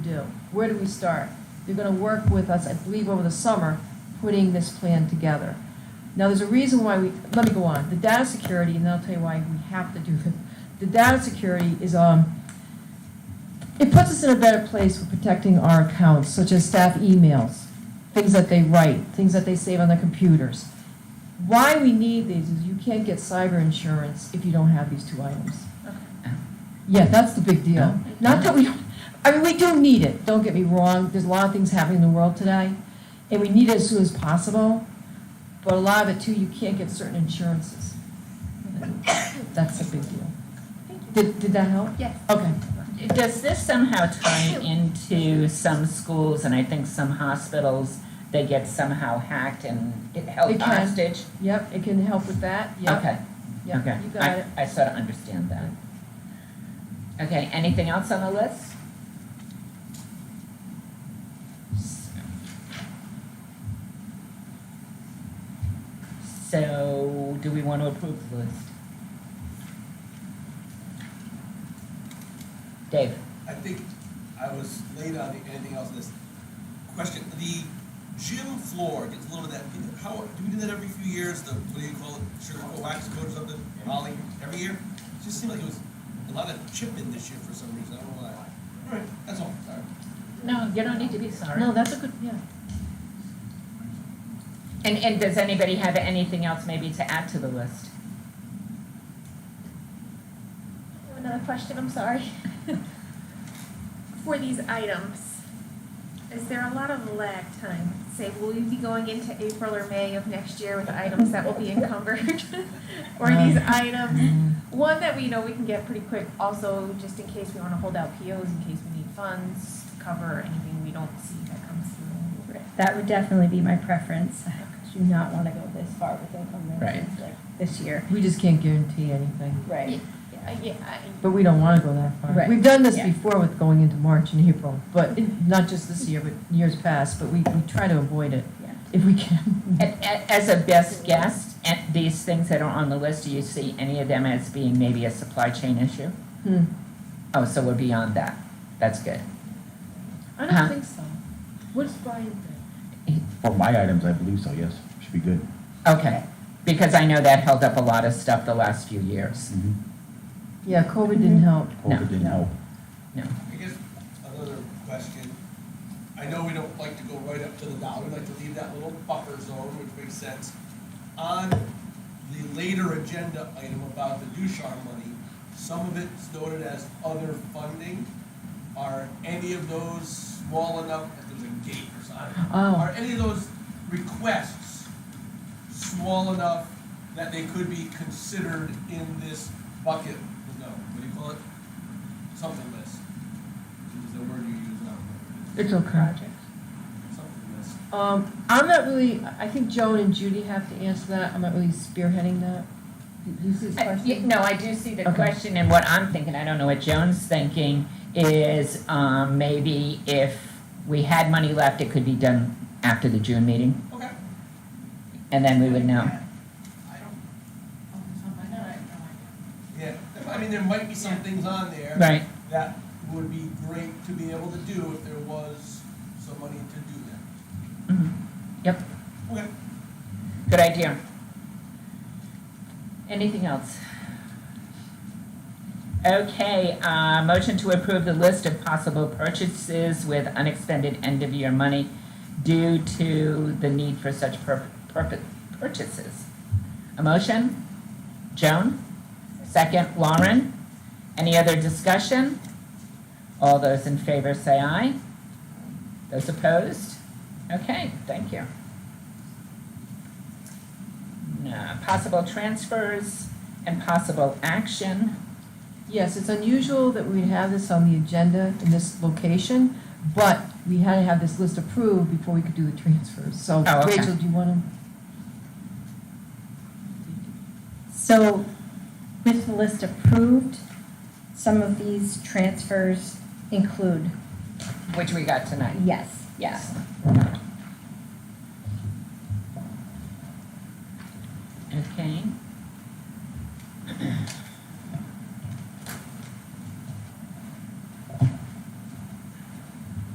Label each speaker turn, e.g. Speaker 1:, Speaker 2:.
Speaker 1: do? Where do we start? You're gonna work with us, I believe, over the summer, putting this plan together. Now, there's a reason why we, let me go on, the data security, and then I'll tell you why we have to do it. The data security is, um, it puts us in a better place for protecting our accounts, such as staff emails, things that they write, things that they save on their computers. Why we need these is you can't get cyber insurance if you don't have these two items. Yeah, that's the big deal. Not that we, don't I mean, we do need it, don't get me wrong, there's a lot of things happening in the world today, and we need it as soon as possible, but a lot of it too, you can't get certain insurances. That's a big deal. Did, did that help?
Speaker 2: Yes.
Speaker 1: Okay.
Speaker 3: Does this somehow tie into some schools and I think some hospitals, they get somehow hacked and it
Speaker 1: It
Speaker 3: held
Speaker 1: can.
Speaker 3: hostage?
Speaker 1: Yep, it can help with that, yep,
Speaker 3: Okay,
Speaker 1: yep,
Speaker 3: okay.
Speaker 1: you got it.
Speaker 3: I, I sort of understand that. Okay, anything else on the list? So, do we want to approve the list? Dave?
Speaker 4: I think I was late on the, anything else in this question. The gym floor gets a little bit of that, how, do we do that every few years? The, what do you call it, sugar coat, wax coat or something, Molly, every year? It just seemed like it was a lot of chipping this year for some reason, I don't know why. All right, that's all, sorry.
Speaker 3: No, you don't need to be sorry.
Speaker 1: No, that's a good, yeah.
Speaker 3: And, and does anybody have anything else maybe to add to the list?
Speaker 2: Another question, I'm sorry. For these items, is there a lot of lag time? Say, will we be going into April or May of next year with items that will be encumbered? Or these items, one that we know we can get pretty quick, also just in case we wanna hold out POs, in case we need funds to cover anything we don't see that comes through.
Speaker 5: That would definitely be my preference. I Do not want to go this far with encumbrances like this year.
Speaker 1: We just can't guarantee anything,
Speaker 5: Right.
Speaker 2: Uh, yeah, I-
Speaker 1: but we don't wanna go that far.
Speaker 5: Right.
Speaker 1: We've done this
Speaker 5: Yeah.
Speaker 1: before with going into March and April, but, not just this year, but years past, but we, we try to avoid it
Speaker 5: Yeah.
Speaker 1: if we can.
Speaker 3: And, and as a best guess, at these things that are on the list, do you see any of them as being maybe a supply chain issue?
Speaker 1: Hmm.
Speaker 3: Oh, so we're beyond that. That's good.
Speaker 1: I
Speaker 3: Huh?
Speaker 1: don't think so. What's Brian think?
Speaker 6: For my items, I believe so, yes. Should be good.
Speaker 3: Okay, because I know that held up a lot of stuff the last few years.
Speaker 1: Yeah, COVID didn't help.
Speaker 3: No.
Speaker 6: COVID didn't help.
Speaker 4: I guess another question. I know we don't like to go right up to the dollar, we like to leave that little buffer zone, which makes sense. On the later agenda item about the Ducharme money, some of it's noted as other funding. Are any of those small enough, if there's a gate or something?
Speaker 1: Oh,
Speaker 4: Are any of those requests small enough that they could be considered in this bucket? No, what do you call it? Something list. Is the word you use now?
Speaker 1: it's okay.
Speaker 4: Something list.
Speaker 1: Um, I'm not really, I I think Joan and Judy have to answer that. I'm not really spearheading that. Do you see this
Speaker 3: I- y-
Speaker 1: question?
Speaker 3: Uh, No, I do see the
Speaker 1: Okay.
Speaker 3: question, and what I'm thinking, I don't know what Joan's thinking, is um, maybe if we had money left, it could be done after the June meeting,
Speaker 4: Okay.
Speaker 3: and then we would know.
Speaker 4: I don't, yeah, I mean, there might be some things on there.
Speaker 3: Right,
Speaker 4: That would be great to be able to do if there was some money to do that.
Speaker 1: Mm-hmm.
Speaker 4: Okay.
Speaker 3: good idea. Anything else? Okay, uh, motion to approve the list of possible purchases with unexpended end-of-year money due to the need for such pur- purpo- purchases. A motion? Joan? Second, Lauren? Any other discussion? All those in favor say aye. Those opposed? Okay, thank you. Uh, Possible transfers and possible action.
Speaker 1: Yes, it's unusual that we have this on the agenda in this location, but we had to have this list approved before we could do the transfers. So
Speaker 3: Oh, okay.
Speaker 1: Rachel, do you want
Speaker 5: So with the list approved, some of these transfers include,
Speaker 3: Which we got tonight.
Speaker 5: yes, yes.